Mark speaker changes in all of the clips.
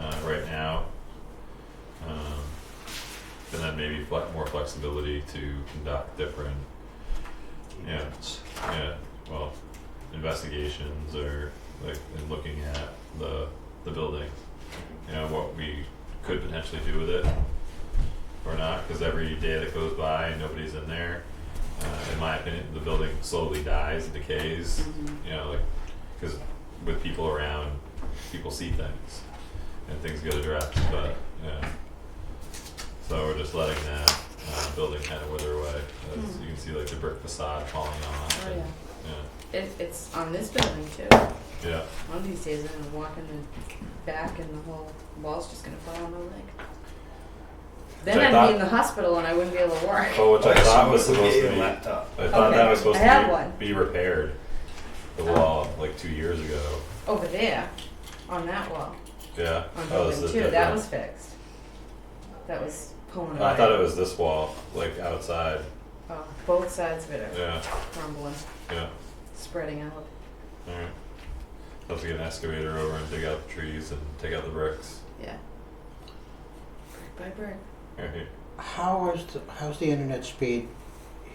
Speaker 1: uh, Um, then maybe fle- more flexibility to conduct different, Yeah. yeah, well, investigations or like in looking at the the building, you know, what we could potentially do with it or not, because every day that goes by and nobody's in there, uh, in my opinion, the building slowly dies and decays. You know, like because with people around, people see things and things get addressed, but yeah. So we're just letting that uh, building kind of wither away. As
Speaker 2: Mm.
Speaker 1: you can see, like the brick facade falling off.
Speaker 2: Oh,
Speaker 1: and,
Speaker 2: yeah.
Speaker 1: yeah.
Speaker 2: It, it's on this building too.
Speaker 1: yeah,
Speaker 2: One of these days I'm gonna walk in the back and the whole wall's just gonna fall on my leg. Then
Speaker 1: I
Speaker 2: I'd
Speaker 1: thought-
Speaker 2: be in the hospital and I wouldn't be able to work.
Speaker 1: Oh, which I thought was
Speaker 3: Someone
Speaker 1: supposed to
Speaker 3: gave
Speaker 1: be.
Speaker 3: a
Speaker 1: I
Speaker 3: Laptop.
Speaker 1: thought
Speaker 2: Okay,
Speaker 1: that was supposed
Speaker 2: I have
Speaker 1: to
Speaker 2: one.
Speaker 1: be, be repaired. The
Speaker 2: Oh.
Speaker 1: wall, like two years ago.
Speaker 2: Over there, on that wall,
Speaker 1: Yeah.
Speaker 2: on
Speaker 1: Oh, this
Speaker 2: building
Speaker 1: is
Speaker 2: two, that
Speaker 1: different.
Speaker 2: was fixed. That was pulling away.
Speaker 1: I thought it was this wall, like outside.
Speaker 2: Oh, both sides of it
Speaker 1: Yeah.
Speaker 2: are crumbling,
Speaker 1: Yeah.
Speaker 2: spreading out.
Speaker 1: Alright. Have to get an excavator over and dig out the trees and take out the bricks.
Speaker 2: Yeah. Brick by brick,
Speaker 1: Alright.
Speaker 4: How is the, how's the internet speed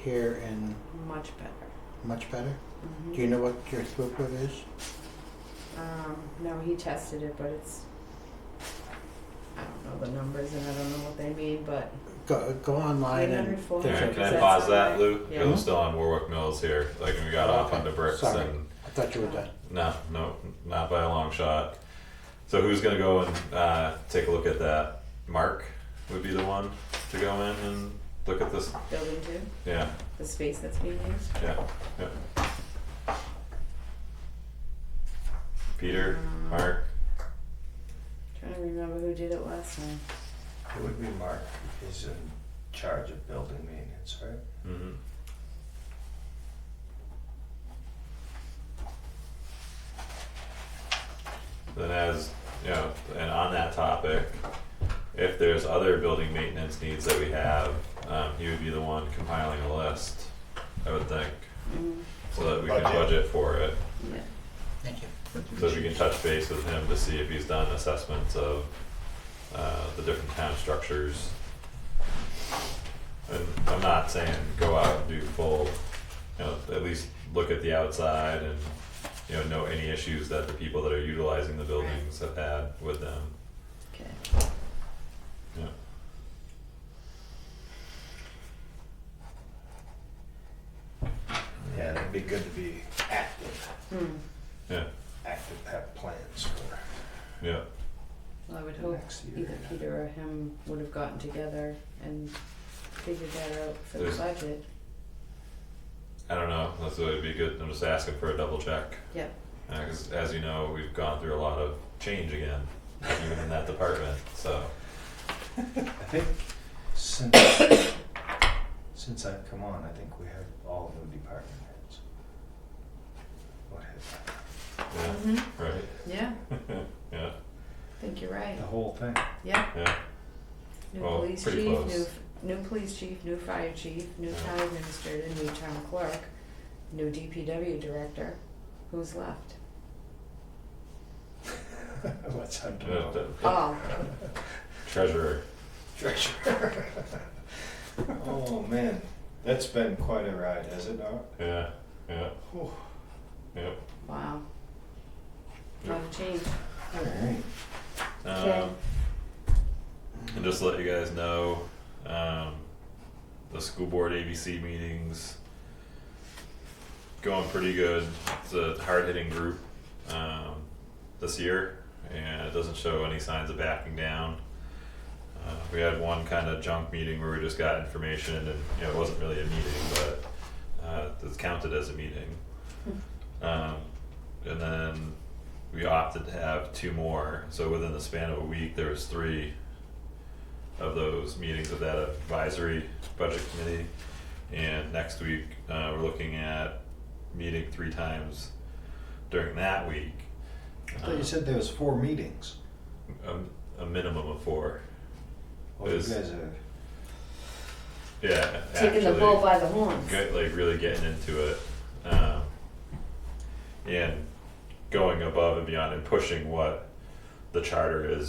Speaker 4: here in
Speaker 2: much better.
Speaker 4: much better?
Speaker 2: Mhm.
Speaker 4: Do you know what your throughput is?
Speaker 2: Um, no, he tested it, but it's, I don't know the numbers and I don't know what they mean, but
Speaker 4: Go go online and
Speaker 2: 804.
Speaker 4: there's
Speaker 1: Alright,
Speaker 4: a,
Speaker 1: can I
Speaker 2: That's
Speaker 1: pause that,
Speaker 2: alright.
Speaker 1: Luke?
Speaker 2: Yeah.
Speaker 1: We're still on Warwick Mills here, like we got off on the bricks
Speaker 4: Sorry.
Speaker 1: and,
Speaker 4: I thought you were done.
Speaker 1: no, no, not by a long shot. So who's gonna go and, uh, take a look at that? Mark would be the one to go in and look at this,
Speaker 2: building two,
Speaker 1: yeah,
Speaker 2: the space that's being used.
Speaker 1: yeah, yeah. Peter,
Speaker 2: Um,
Speaker 1: Mark,
Speaker 2: Trying to remember who did it last time.
Speaker 3: It would be Mark, he's in charge of building maintenance, right?
Speaker 1: mhm, then as you know, and on that topic, if there's other building maintenance needs that we have, um, he would be the one compiling a list, I would think,
Speaker 2: Mm,
Speaker 1: so that we can
Speaker 3: Budget.
Speaker 1: budget for it.
Speaker 2: yeah.
Speaker 4: Thank you.
Speaker 1: So if you can touch base with him to see if he's done assessments of, uh, the different town structures. And I'm not saying go out and do full, you know, at least look at the outside and, you know, know any issues that the people that are utilizing the buildings have had with them.
Speaker 2: Okay.
Speaker 1: Yeah.
Speaker 3: Yeah, it'd be good to be active,
Speaker 2: Hmm.
Speaker 1: Yeah,
Speaker 3: active, have plans for
Speaker 1: yeah,
Speaker 2: Well, I would hope
Speaker 3: next year.
Speaker 2: either Peter or him would have gotten together and figured that out for the
Speaker 1: There's-
Speaker 2: budget.
Speaker 1: I don't know, that's what would be good, I'm just asking for a double check.
Speaker 2: Yep.
Speaker 1: Uh, 'cause as you know, we've gone through a lot of change again, even in that department, so,
Speaker 3: I think since, since I've come on, I think we have all new department heads. What hit,
Speaker 1: yeah,
Speaker 2: Mm-hmm.
Speaker 1: right,
Speaker 2: Yeah,
Speaker 1: yeah,
Speaker 2: I think you're right.
Speaker 3: the whole thing,
Speaker 2: Yeah.
Speaker 1: yeah.
Speaker 2: New
Speaker 1: Well,
Speaker 2: police
Speaker 1: pretty
Speaker 2: chief,
Speaker 1: close.
Speaker 2: new, f- new police chief, new fire chief, new
Speaker 1: Yeah.
Speaker 2: town administrator, new town clerk, new DPW director. Who's left?
Speaker 3: what's under
Speaker 1: Uh, the- the
Speaker 2: Oh,
Speaker 1: Treasurer.
Speaker 3: treasure? Oh, man, that's been quite a ride, has it not?
Speaker 1: Yeah, yeah,
Speaker 3: Whew.
Speaker 1: yeah.
Speaker 2: wow.
Speaker 1: Yeah.
Speaker 2: Lot of change.
Speaker 3: All right.
Speaker 2: Okay.
Speaker 1: Um, and just to let you guys know, um, the school board ABC meetings going pretty good. It's a hard hitting group um, this year, and it doesn't show any signs of backing down. Uh, we had one kind of junk meeting where we just got information, and you know, it wasn't really a meeting, but uh, it's counted as a meeting. Um, and then we opted to have two more. So within the span of a week, there was three of those meetings of that advisory budget committee. And next week, uh, we're looking at meeting three times during that week.
Speaker 3: I thought you said there was four meetings.
Speaker 1: Um, a, a minimum of four.
Speaker 3: Oh, you
Speaker 1: Is-
Speaker 3: guys are.
Speaker 1: Yeah,
Speaker 2: Taking the
Speaker 1: actually.
Speaker 2: bull by the horns.
Speaker 1: get like really getting into it um, and going above and beyond and pushing what the charter is